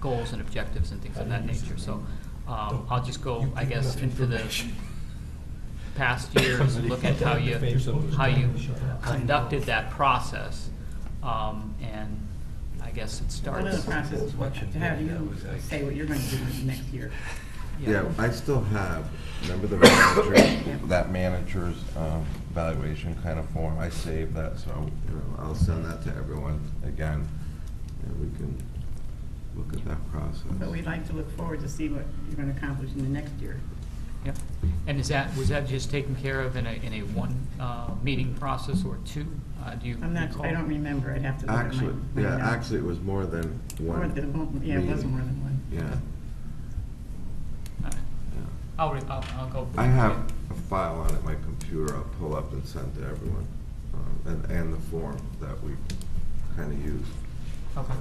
goals and objectives and things of that nature, so, um, I'll just go, You've I given guess, enough into the information. past years, look at how you, how you conducted that process, um, and I guess it Part of starts. the process is what, to have you say what you're going to do next year. Yeah, I still have, remember the manager, that manager's um, evaluation kind of form, I saved that, so you know, I'll send that to everyone again, and we can look at that process. But we'd like to look forward to see what you're going to accomplish in the next year. Yeah, and is that, was that just taken care of in a, in a one, uh, meeting process or two? Uh, do you I'm not, recall? I don't remember, I'd have to look at my. Actually, my yeah, notes. actually, it was more than one. More than one- Yeah, it was meeting. more than one. Yeah, All right. yeah. I'll, re- I'll, I'll go. I have a file on it, my computer, I'll pull up and send to everyone, um, and, and the form that we kind of used. Okay.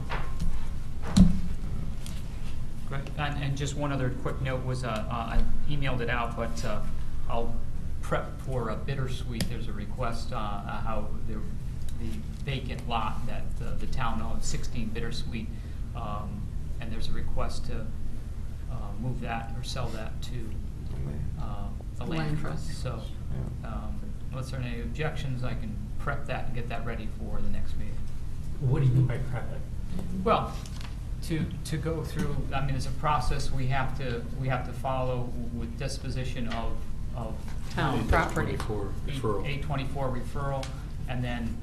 Great, and, and just one other quick note was, uh, uh, I emailed it out, but, uh, I'll prep for a bittersweet, there's a request, uh, uh, how the, the vacant lot that uh, the town owns, sixteen bittersweet, um, and there's a request to, uh, move that or sell that to, um, the land trust, so, Yeah. um, unless there are any objections, I can prep that and get that ready for the next meeting. What do you mean by private? Well, to, to go through, I mean, it's a process we have to, we have to follow with disposition of, of. Town property. 824 referral. Eight twenty-four referral, and then,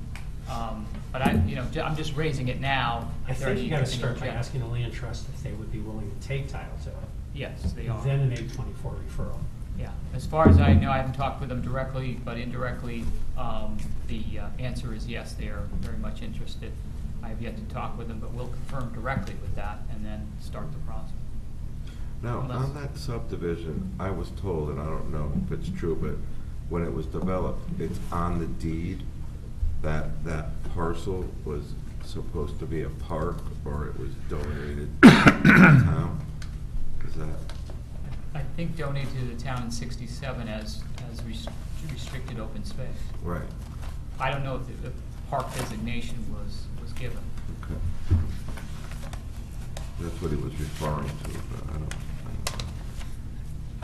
um, but I, you know, ju- I'm just raising it now. I if there are think you gotta any- any start by objections. asking the land trust if they would be willing to take title to it. Yes, they are. Then an eight twenty-four referral. Yeah, as far as I know, I haven't talked with them directly, but indirectly, um, the uh, answer is yes, they are very much interested. I have yet to talk with them, but we'll confirm directly with that and then start the process. Now, Unless- on that subdivision, I was told, and I don't know if it's true, but when it was developed, it's on the deed that that parcel was supposed to be a park or it was donated to the town. Is that, I think donated to the town in sixty-seven as, as res- restricted open space. right? I don't know if the, if park designation was, was given. Okay. That's what he was referring to, but I don't, I don't know.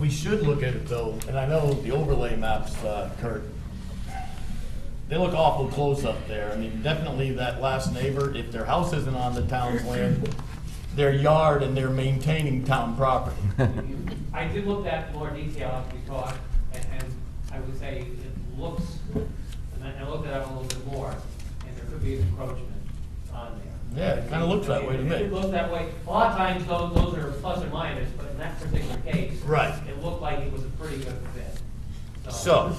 We should look at it though, and I know the overlay maps, uh, Kurt, they look awful close up there. I mean, definitely that last neighbor, if their house isn't on the town's land, their yard and they're maintaining town property. I did look at more detail after we talked, and, and I would say it looks, and I I looked at it up a little bit more, and there could be an encroachment on there. Yeah, it kinda looks that way to me. It looks that way. A lot of times, those, those are plus or minus, but in that particular case. Right. It looked like it was a pretty good fit. So,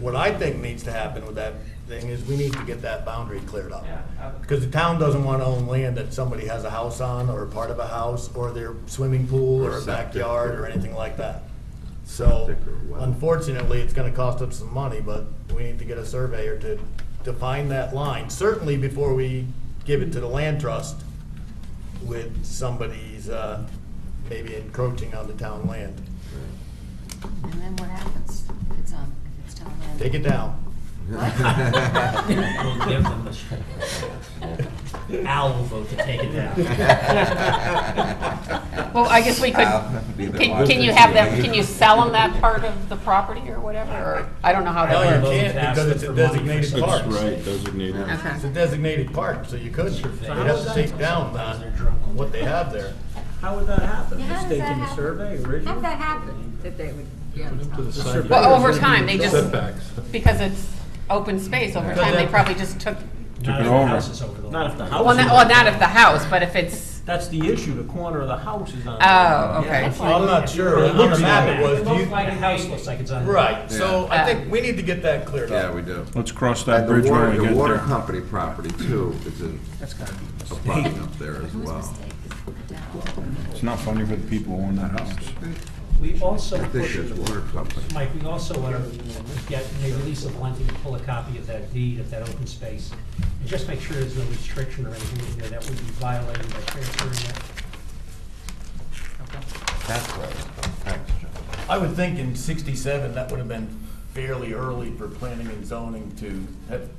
what I think needs to happen with that thing is we need to get that boundary cleared up. Yeah. I- Because the town doesn't want to own land that somebody has a house on, or part of a house, or their swimming pool, Or or a septic. backyard, or anything like that. So Septic or well. unfortunately, it's gonna cost us some money, but we need to get a surveyor to define that line, certainly before we give it to the land trust with somebody's, uh, maybe encroaching on the town land. And then what happens if it's on, if it's town land? Take it down. We'll give them the, Al will vote to take it down. Well, I guess we could, I'll be the can, one can to you have them, say. can you sell them that part of the property or whatever? Or, I don't know how No, that you works. can't because it's a designated park. Yeah. Okay. It's a designated park, so you could, you'd how have is to that take down uh, what they have there. How would that happen? Yeah, how Just does that taking the happen? survey How did originally? that happen, that they would be on town? Well, over time, they just, because it's open space, over time, they that- probably just took, Not if Uh, the house is over the. Not if the well, not, well, house not of the house, but if it's, That's the issue, the corner of the house is on. oh, okay. Well, I'm not sure. It On looks the map it like- was, It do looks you- like The a house looks like it's on. right, so I think we need to get that cleared Yeah, up. we do. Let's cross that And bridge the when water, we the get water there. company property too, is in, That's gotta be a button up there as well. It's not funny for the people who own that house. We also I put think there's in the water company. Mike, we also want to get, maybe Lisa Valenti to pull a copy of that deed of that open space, and just make sure there's no restriction or anything in there that would be violated by transferring that. Okay. That's right. Thanks, John. I would think in sixty-seven, that would have been fairly early for planning and zoning to have